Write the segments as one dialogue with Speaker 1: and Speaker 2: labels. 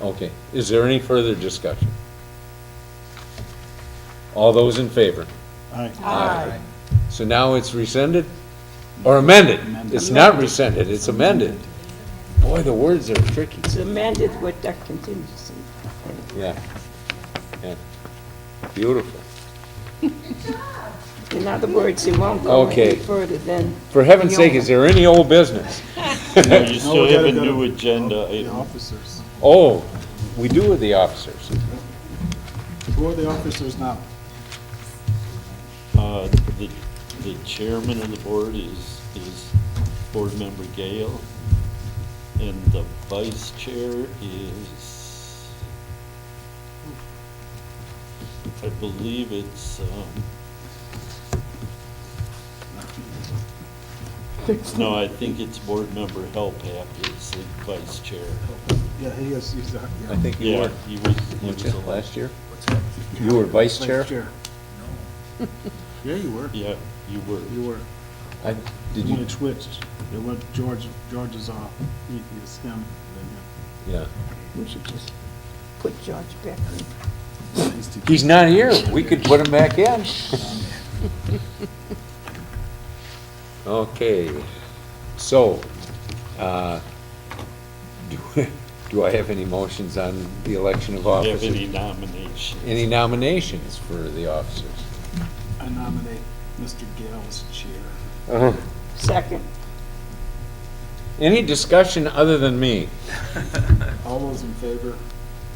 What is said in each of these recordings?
Speaker 1: Okay, is there any further discussion? All those in favor?
Speaker 2: Ah.
Speaker 1: Aye. So now it's rescinded or amended? It's not rescinded, it's amended. Boy, the words are tricky.
Speaker 3: It's amended with that contingency.
Speaker 1: Yeah. Yeah. Beautiful.
Speaker 3: In other words, it won't go any
Speaker 1: Okay.
Speaker 3: further than,
Speaker 1: For heaven's sake, is there any old business?
Speaker 4: No, you still
Speaker 2: gotta
Speaker 4: have a
Speaker 2: go
Speaker 4: new
Speaker 2: to-
Speaker 4: agenda
Speaker 2: The
Speaker 4: item.
Speaker 2: officers.
Speaker 1: Oh, we do with the officers.
Speaker 2: Who are the officers now?
Speaker 4: Uh, The the chairman of the board is, is board member Gale, and the vice chair is, I believe it's, um, no, I think it's board member Helpap is the vice chair.
Speaker 2: Yeah, he is, he's, uh,
Speaker 1: I
Speaker 2: yeah.
Speaker 1: think you
Speaker 4: Yeah,
Speaker 1: were,
Speaker 4: he was, he
Speaker 1: weren't
Speaker 4: was
Speaker 1: you,
Speaker 4: elected.
Speaker 1: last year? You were vice chair?
Speaker 2: Yeah, you were,
Speaker 4: Yeah, you were.
Speaker 2: you were.
Speaker 1: I- Did
Speaker 2: When
Speaker 1: you,
Speaker 2: it switched, it went George, George is off, he, it's him,
Speaker 1: yeah.
Speaker 3: we should just put George back in.
Speaker 2: then him. He's the-
Speaker 1: He's not here, we could put him back in. Okay, so, uh, do, do I have any motions on the election of
Speaker 4: Do you have any
Speaker 1: officers?
Speaker 4: nominations?
Speaker 1: Any nominations for the officers?
Speaker 2: I nominate Mr. Gale as chair.
Speaker 3: Second,
Speaker 1: Any discussion other than me?
Speaker 2: All those in favor?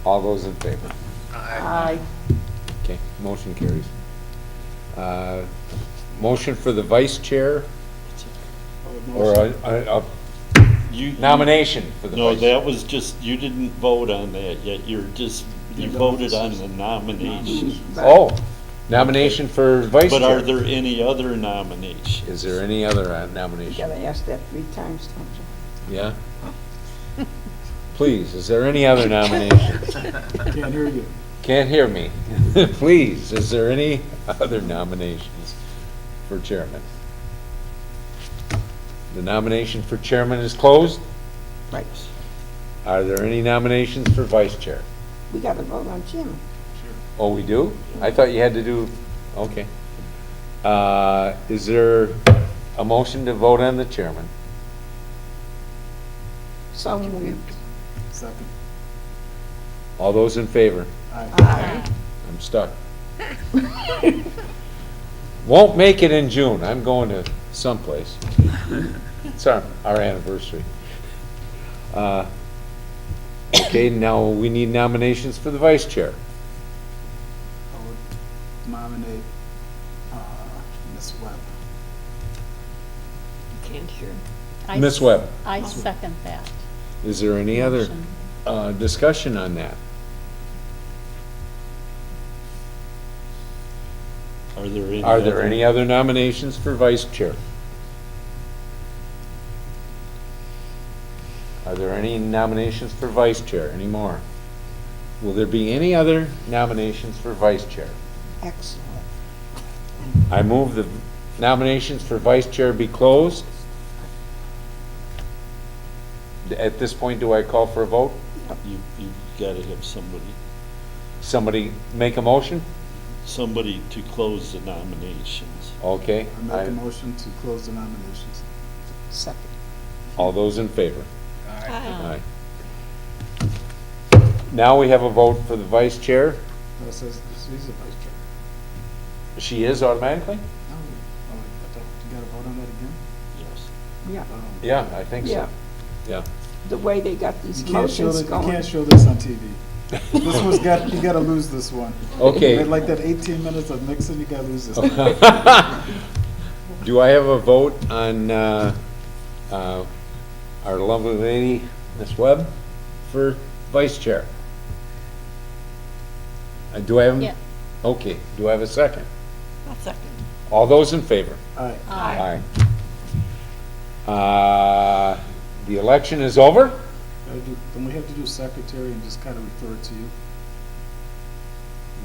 Speaker 1: All those in favor?
Speaker 3: aye.
Speaker 1: Okay, motion carries. Uh, Motion for the vice chair
Speaker 2: I would
Speaker 1: or
Speaker 2: motion-
Speaker 1: a, a- a
Speaker 4: You- you-
Speaker 1: nomination for the
Speaker 4: No,
Speaker 1: vice?
Speaker 4: that was just, you didn't vote on that yet, you're just, you
Speaker 2: You don't.
Speaker 4: voted on the nomination.
Speaker 1: Oh, nomination for vice chair.
Speaker 4: But are there any other nominations?
Speaker 1: Is there any other uh,
Speaker 3: You
Speaker 1: nomination?
Speaker 3: gotta ask that three times, don't you?
Speaker 1: Yeah? Please, is there any other nomination?
Speaker 2: Can't hear you.
Speaker 1: Can't hear me. Please, is there any other nominations for chairman? The nomination for chairman is closed.
Speaker 3: Right,
Speaker 1: Are there any nominations for vice chair?
Speaker 3: we gotta vote on Jim.
Speaker 1: Oh, we do? I thought you had to do, okay. Uh, Is there a motion to vote on the chairman?
Speaker 3: So moved,
Speaker 2: Second.
Speaker 1: All those in favor?
Speaker 2: Aye.
Speaker 1: I'm stuck. Won't make it in June, I'm going to someplace. It's our, our anniversary. Uh, Okay, now we need nominations for the vice chair.
Speaker 2: I would nominate, uh, Ms. Webb.
Speaker 5: Can't hear.
Speaker 6: I
Speaker 1: Ms.
Speaker 6: s-
Speaker 1: Webb,
Speaker 6: I second that.
Speaker 1: is there any other
Speaker 6: motion.
Speaker 1: uh, discussion on that?
Speaker 4: Are there any?
Speaker 1: Are there
Speaker 4: other-
Speaker 1: any other nominations for vice chair? Are there any nominations for vice chair anymore? Will there be any other nominations for vice chair?
Speaker 3: excellent.
Speaker 1: I move the nominations for vice chair be closed. At this point, do I call for a vote?
Speaker 4: You, you gotta have somebody,
Speaker 1: Somebody make a motion?
Speaker 4: somebody to close the nominations.
Speaker 1: Okay.
Speaker 2: I make a motion to close the nominations.
Speaker 3: Second,
Speaker 1: All those in favor?
Speaker 6: Aye.
Speaker 1: Aye. Now we have a vote for the vice chair.
Speaker 2: That says, she's the vice chair.
Speaker 1: She is automatically?
Speaker 2: No, oh, wait, I thought, you gotta vote on that again?
Speaker 4: Yes.
Speaker 3: yeah,
Speaker 2: Um,
Speaker 1: Yeah, I think
Speaker 3: yeah.
Speaker 1: so. Yeah.
Speaker 3: The way they got these
Speaker 2: You can't show,
Speaker 3: motions
Speaker 2: that- you
Speaker 3: going.
Speaker 2: can't show this on TV. This one's got, you gotta lose this one.
Speaker 1: Okay.
Speaker 2: Like that eighteen minutes of Nixon, you gotta lose this. one.
Speaker 1: Do I have a vote on uh, uh, our lovely lady, Ms. Webb, for vice chair? Uh, Do I have?
Speaker 6: Yeah.
Speaker 1: Okay, do I have a second?
Speaker 5: I'll second.
Speaker 1: All those in favor?
Speaker 2: All right,
Speaker 1: Aye. Uh, The election is over?
Speaker 2: gotta do- then we have to do secretary and just kinda refer it to you.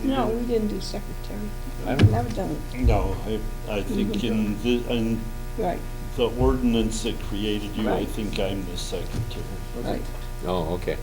Speaker 3: No, we didn't do secretary.
Speaker 1: I
Speaker 3: We've
Speaker 1: don't-
Speaker 3: never done it,
Speaker 4: No, I, I think in the, in
Speaker 3: right,
Speaker 4: the ordinance that created you, I
Speaker 3: Right.
Speaker 4: think I'm the secretary.
Speaker 3: right.
Speaker 1: Oh, okay.